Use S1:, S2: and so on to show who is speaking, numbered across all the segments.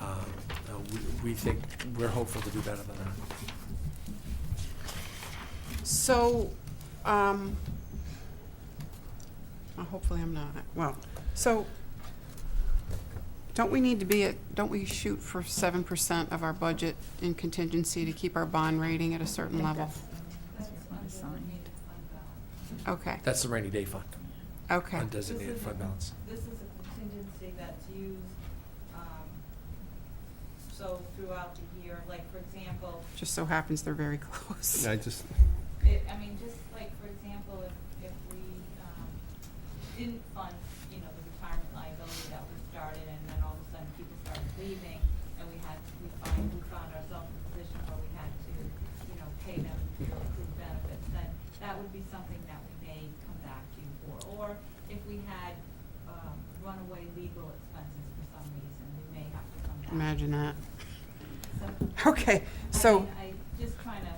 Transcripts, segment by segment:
S1: Uh, we- we think, we're hopeful to do better than that.
S2: So, um, well, hopefully I'm not, well, so, don't we need to be at, don't we shoot for seven percent of our budget in contingency to keep our bond rating at a certain level? Okay,
S1: That's the rainy day fund,
S2: okay,
S1: undesignated fund balance.
S3: This is a contingency that's used, um, so throughout the year, like, for example,
S2: just so happens they're very close.
S4: I just,
S3: it, I mean, just like, for example, if, if we, um, didn't fund, you know, the retirement liability that was started, and then all of a sudden people started leaving, and we had, we find, we found ourselves in a position where we had to, you know, pay them their accrued benefits, then that would be something that we may come back to you for. Or if we had, um, runaway legal expenses for some reason, we may have to come back.
S2: Imagine that.
S3: So-
S2: Okay,
S3: I
S2: so
S3: mean, I just trying to,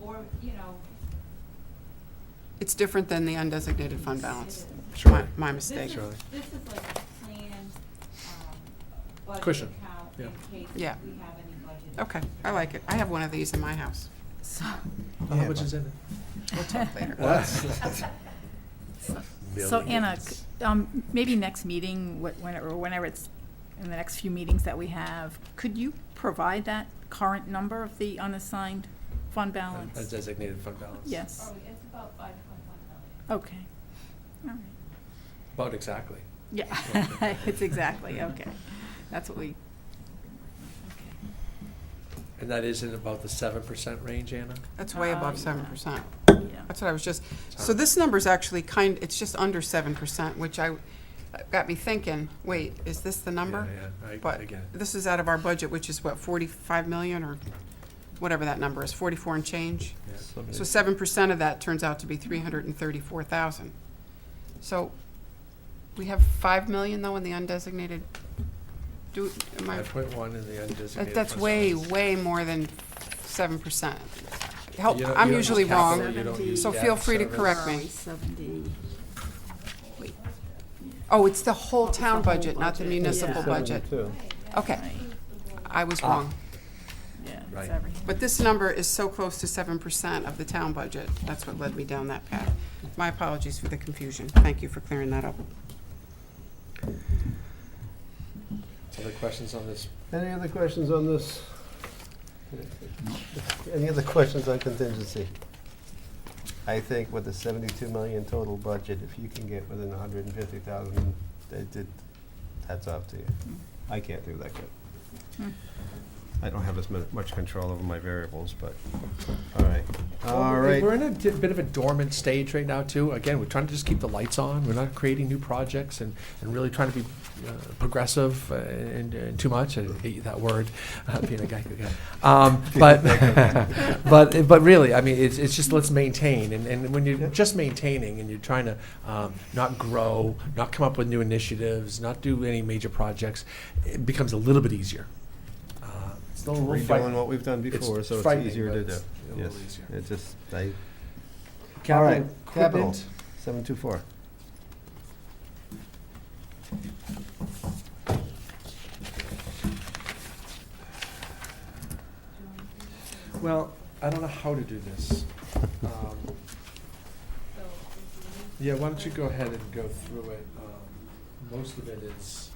S3: or, you know.
S2: it's different than the undesignated fund balance.
S3: it is.
S2: My,
S1: Sure.
S2: my
S3: This
S2: mistake.
S3: is-
S1: Surely.
S3: This is like a planned, um, budget
S1: Cushion,
S3: account
S1: yeah.
S3: in case we
S2: Yeah.
S3: have any budget.
S2: Okay, Oh. I like it. I have one of these in my house.
S1: How
S4: Yeah,
S1: much
S4: but-
S1: is in it?
S2: We'll talk later.
S5: So Anna, c- um, maybe next meeting, wh- when- or whenever it's, in the next few meetings that we have, could you provide that current number of the unassigned fund balance?
S1: Undesignated fund balance.
S5: Yes,
S3: Oh, it's about five point one million.
S2: Oh.
S5: okay. All right.
S1: About exactly.
S5: Yeah, it's exactly, okay. That's what we.
S1: And that is in about the seven percent range, Anna?
S2: That's way
S5: Uh,
S2: above
S5: yeah.
S2: seven percent.
S5: okay, yeah.
S2: That's what I was just, so this number's actually kind, it's just under seven percent, which I, got me thinking, wait, is this the number?
S1: Yeah, yeah, I-
S2: But
S1: I get it.
S2: this is out of our budget, which is what, forty-five million or whatever that number is, forty-four and change?
S1: Yeah.
S2: So seven percent of that turns out to be three hundred and thirty-four thousand. So we have five million though in the undesignated, do, am I,
S1: Five point one in the undesignated.
S2: that- that's
S1: fund
S2: way,
S1: balance.
S2: way more than seven percent. Help,
S1: You don't-
S2: I'm
S1: you don't
S2: usually
S1: use capital,
S2: wrong,
S1: you don't use
S2: so
S1: debt
S2: feel free to
S1: service.
S2: correct me.
S5: Seventy, wait.
S2: Oh, it's the whole town
S5: the whole
S2: budget, not the
S5: budget.
S2: municipal
S5: Yeah.
S2: budget. Okay, I was wrong.
S5: Yeah,
S1: Right.
S5: it's everything.
S2: But this number is so close to seven percent of the town budget. That's what led me down that path. My apologies for the confusion. Thank you for clearing that up.
S1: Other questions on this?
S4: Any other questions on this? Any other questions on contingency? I think with the seventy-two million total budget, if you can get within a hundred and fifty thousand, it did, hats off to you. I can't do that good.
S5: Hmm.
S4: I don't have as mu- much control over my variables, but, all right, all
S1: Well,
S4: right.
S1: We're in a di- bit of a dormant stage right now, too. Again, we're trying to just keep the lights on. We're not creating new projects and, and really trying to be uh, progressive uh, and, and too much. I hate that word, uh, being a Geico guy. Um, but, but, but really, I mean, it's, it's just let's maintain. And, and when
S4: Yeah.
S1: you're just maintaining and you're trying to um, not grow, not come up with new initiatives, not do any major projects, it becomes a little bit easier. Uh, it's still a little fight-
S4: Redoing what we've done
S1: it's
S4: before, so it's
S1: frightening,
S4: easier
S1: but
S4: to do.
S1: it's a little
S4: Yes,
S1: easier.
S4: it just, I, All
S1: Capital
S4: right, capital.
S1: equipment.
S4: seven two four.
S1: Well, I don't know how to do this. Um,
S3: So if you
S1: Yeah, why don't you go ahead and go through it? Um, Most of it is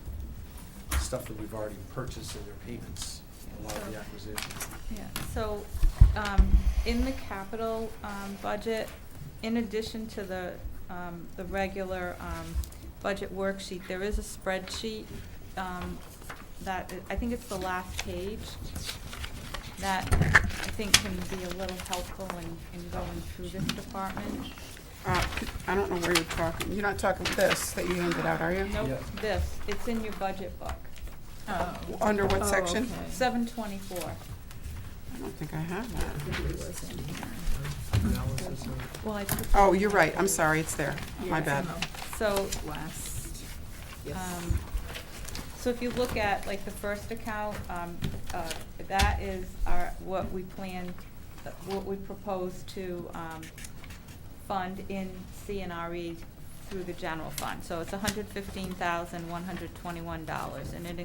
S1: stuff that we've already purchased in their payments, a lot of the acquisitions.
S3: Yeah, so, um, in the capital, um, budget, in addition to the, um, the regular, um, budget worksheet, there is a spreadsheet, um, that, I think it's the last page, that I think can be a little helpful in, in going through this department.
S2: Uh, I don't know where you're talking. You're not talking this that you handed out, are you?
S3: Nope,
S1: Yeah.
S3: this, it's in your budget book,
S5: Oh.
S2: Under what
S5: Oh,
S2: section?
S5: okay.
S3: seven twenty-four.
S2: I don't think I have that.
S1: Analysis of-
S3: Well, I took.
S2: Oh, you're right. I'm sorry. It's there. My
S5: Yes,
S2: bad.
S5: no,
S3: So,
S5: Last.
S3: Um, So if you look at, like, the first account, um, uh, that is our, what we plan, what we propose to um, fund in E CNRE through the general fund. So it's hundred fifteen thousand, one hundred twenty-one dollars, and it